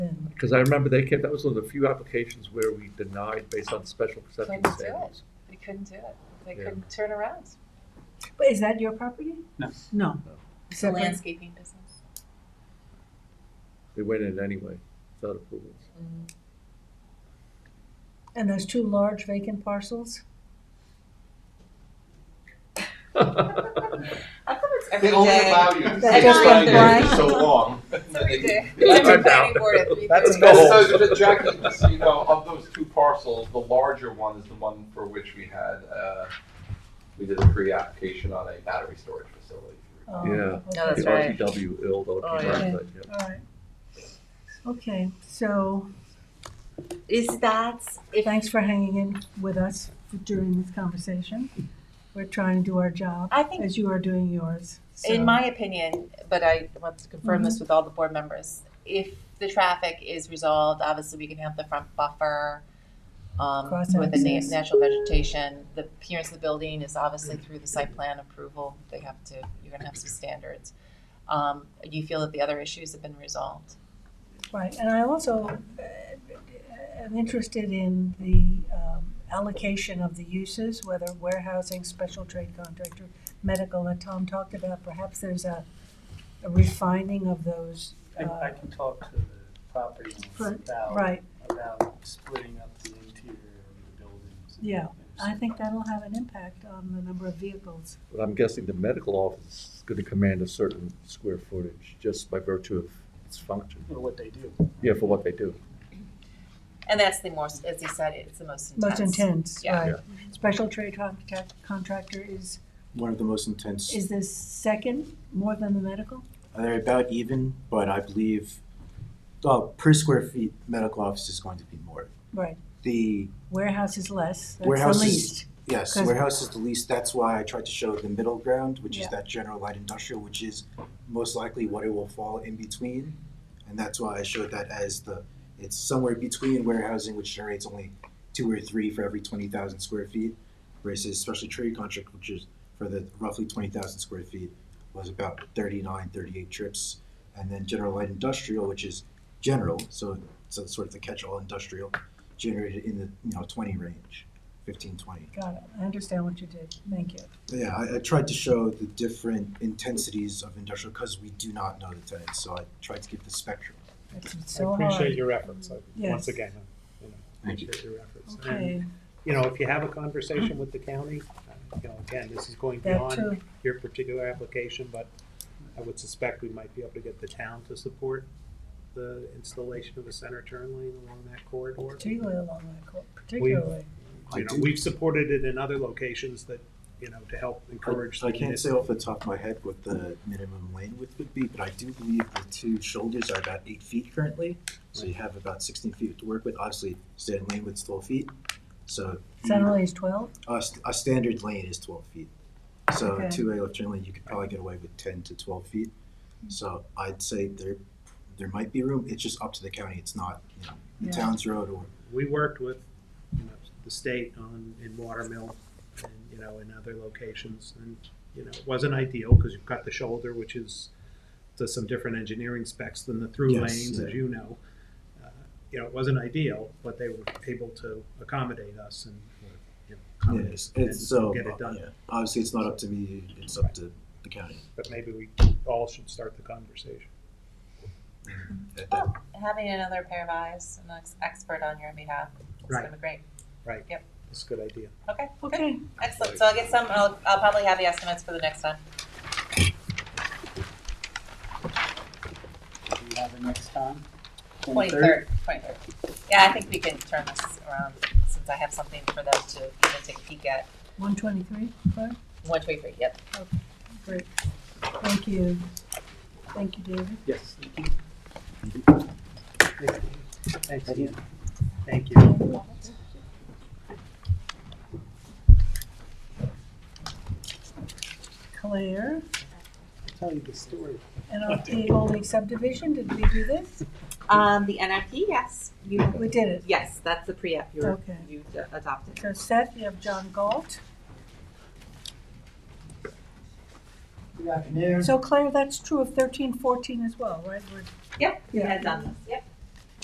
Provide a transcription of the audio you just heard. Because I remember they came, that was one of the few applications where we denied based on special perception Couldn't do it. standards. They couldn't do it. They Yeah. couldn't turn around. But is that your property? No. No. No. It's a Separate? landscaping business. They went in anyway, without approvals. And there's two large vacant parcels? How come it's every They only day? allow you to That stay just went there blank. for so long. It's every day. Yeah, It's every I'm down. planning board at three That's thirty. No. And so, the- Jackie, just so you know, of those two parcels, the larger one is the one for which we had, uh, we did a pre-application on a battery storage facility. Oh, Yeah. okay. No, that's The right. RTW ill, though. Oh, yeah. All right. Okay, so Is that if thanks for hanging in with us during this conversation. We're trying to do our job I think as you are doing yours. so- Mm-hmm. In my opinion, but I want to confirm this with all the board members. If the traffic is resolved, obviously we can have the front buffer um, Cross with the na- access. natural vegetation. The appearance of the building is obviously through the site plan approval. They have to. You're going to have some standards. Um, you feel that the other issues have been resolved. Right, and I also uh, am interested in the um, allocation of the uses, whether warehousing, special trade contractor, medical, that Tom talked about, perhaps there's a a refining of those. I, uh, I can talk to the property owners Right, about, Right, about splitting up the interior of the buildings. and- Yeah, and I so- think that'll have an impact on the number of vehicles. But I'm guessing the medical office is gonna command a certain square footage just by virtue of its function. You know, what they do. Yeah, for what they do. And that's the most, as you said, it's the most intense. Most intense, Yeah. right. Special trade contract- contractor is, one of the most intense. is the second more than the medical? They're about even, but I believe uh, per square feet, medical office is going to be more. Right, The warehouse is less, that's Warehouse the is- least. yes, 'Cause- warehouse is the least. That's why I tried to show the middle ground, which Yeah. is that general light industrial, which is most likely what it will fall in between, and that's why I showed that as the it's somewhere between warehousing, which generates only two or three for every twenty thousand square feet, versus special trade contract, which is for the roughly twenty thousand square feet was about 39, 38 trips, and then general light industrial, which is general, so so it's sort of the catch-all industrial, generated in the you know twenty range, 15, 20. Got it, I understand what you did, thank you. Yeah, I, I tried to show the different intensities of industrial because we do not know the tenants, so I tried to give the spectrum. It's I so appreciate hard. your efforts, I- Yes. once again, you know, Thank you. appreciate your efforts. And, Okay, you know, if you have a conversation with the county, uh, you know, again, this is going that beyond too, your particular application, but I would suspect we might be able to get the town to support the installation of a center turn lane along that corridor. particularly along that cor- particularly. I You know, do- we've supported it in other locations that, you know, to help encourage. I, I the can't say municipal- off the top of my head what the minimum lane width would be, but I do believe the two shoulders are about eight feet currently. So you have about sixteen feet to work with. Obviously, standard lane width's twelve feet, so Center lane is twelve, a, st- a standard lane is twelve feet. So Okay. a two-way left turn lane, you could probably get away with ten to twelve feet. Hmm. So I'd say there, there might be room. It's just up to the county. It's not, you know, Yeah. the town's road or We worked with, you know, the state on, in Watermill and, you know, in other locations. And, you know, it wasn't ideal because you've got the shoulder, which is to some different engineering specs than the through Yes, lanes, yeah. as you know. Uh, You know, it wasn't ideal, but they were able to accommodate us and, you know, accommodate Yes, and it's so, get it done. yeah. obviously, it's not up to me, it's up to the county. But maybe we all should start the conversation. At that Well, having another pair of eyes, an ex- expert on your behalf, is Right. going to be great. It's a good idea. Okay, good. okay, Excellent. So I'll get some, I'll, I'll probably have the estimates for the next time. Do you have a next time? Twenty-third, twenty-third. Yeah, I think we can turn this around since I have something for them to even take a peek at. one twenty-three, Claire, One, two, three, yep. great, thank you, thank you, David. Yes. Thanks, Ian. Thank you. Claire, Tell you the story. and our Old Lake subdivision, did we do this? Um, the NFP, yes. You, We did it, yes, that's the pre-app you were, okay. you d- adopted. So Seth, you have John Galt. Good afternoon. So Claire, that's true of thirteen, fourteen as well, right? We're- Yep, we Yeah. had done this, yep.